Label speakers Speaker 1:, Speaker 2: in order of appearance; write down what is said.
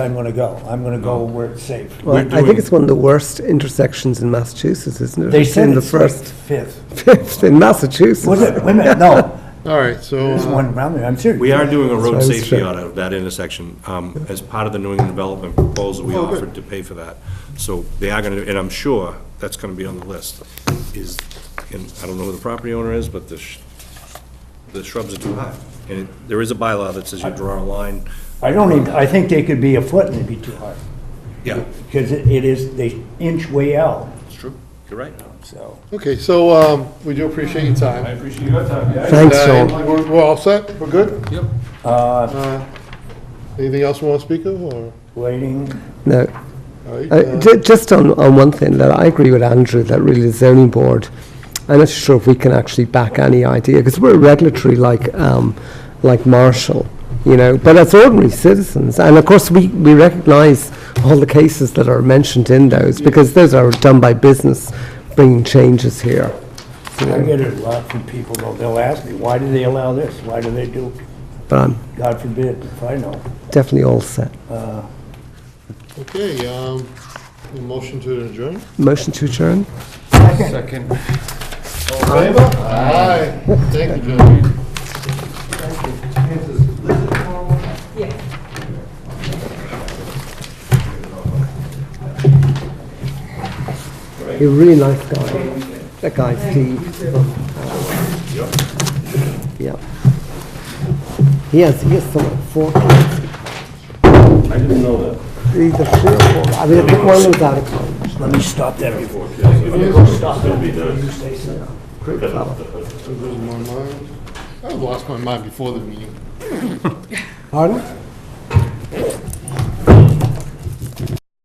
Speaker 1: I'm gonna go. I'm gonna go where it's safe.
Speaker 2: Well,
Speaker 3: We're
Speaker 2: I
Speaker 3: doing-
Speaker 2: think it's one of the worst intersections in Massachusetts, isn't it?
Speaker 1: They
Speaker 2: It's
Speaker 1: said
Speaker 2: in the
Speaker 1: it's
Speaker 2: first
Speaker 1: fifth.
Speaker 2: fifth in Massachusetts.
Speaker 1: Was it, wait a minute, no,
Speaker 4: All right, so,
Speaker 1: there's
Speaker 4: uh,
Speaker 1: one around there, I'm serious.
Speaker 3: We are doing a
Speaker 2: That's what
Speaker 3: road
Speaker 2: I was
Speaker 3: safety
Speaker 2: checking.
Speaker 3: audit of that intersection, um, as part of the New England Development proposal,
Speaker 2: Oh,
Speaker 3: we offered to pay for that. So they are gonna, and I'm sure that's gonna be on the list, is, and I don't know who the property owner is, but the, sh- the shrubs are too high. And it- there is a bylaw that says you draw a line,
Speaker 1: I don't even, I think they could be a foot and it'd be too hard,
Speaker 3: yeah,
Speaker 1: because it it is, they inch way out,
Speaker 3: it's true, you're right.
Speaker 1: so.
Speaker 4: okay, so um, we do appreciate your time.
Speaker 3: appreciate your time, guys.
Speaker 2: Thanks,
Speaker 4: Uh,
Speaker 2: Joel.
Speaker 4: We're we're all set? We're good?
Speaker 3: Yep.
Speaker 4: Uh, Anything else we want to speak of, or?
Speaker 1: Waiting,
Speaker 2: No,
Speaker 4: all right,
Speaker 2: Uh,
Speaker 4: uh,
Speaker 2: ju- just on, on one thing, that I agree with Andrew, that really the zoning board, I'm not sure if we can actually back any idea, because we're regulatory like, um, like Marshall, you know, but as ordinary citizens, and of course, we, we recognize all the cases that are mentioned in those, because those are done by business bringing changes here. you
Speaker 1: I
Speaker 2: know.
Speaker 1: get it a lot from people, though, they'll ask me, why do they allow this, why do they do,
Speaker 2: But I'm
Speaker 1: God forbid, if I know.
Speaker 2: definitely all set.
Speaker 4: Okay, um, a motion to adjourn?
Speaker 2: Motion to adjourn?
Speaker 4: Favor? Aye. Thank you, Joe.
Speaker 2: He's a really nice guy, that guy Steve. Yeah. He has, he has some, like, four kids.
Speaker 3: I didn't know that.
Speaker 2: Either three or four, I mean, I think one was out of college.
Speaker 1: Let me stop that before.
Speaker 4: I've lost my mind before the meeting.
Speaker 2: Pardon?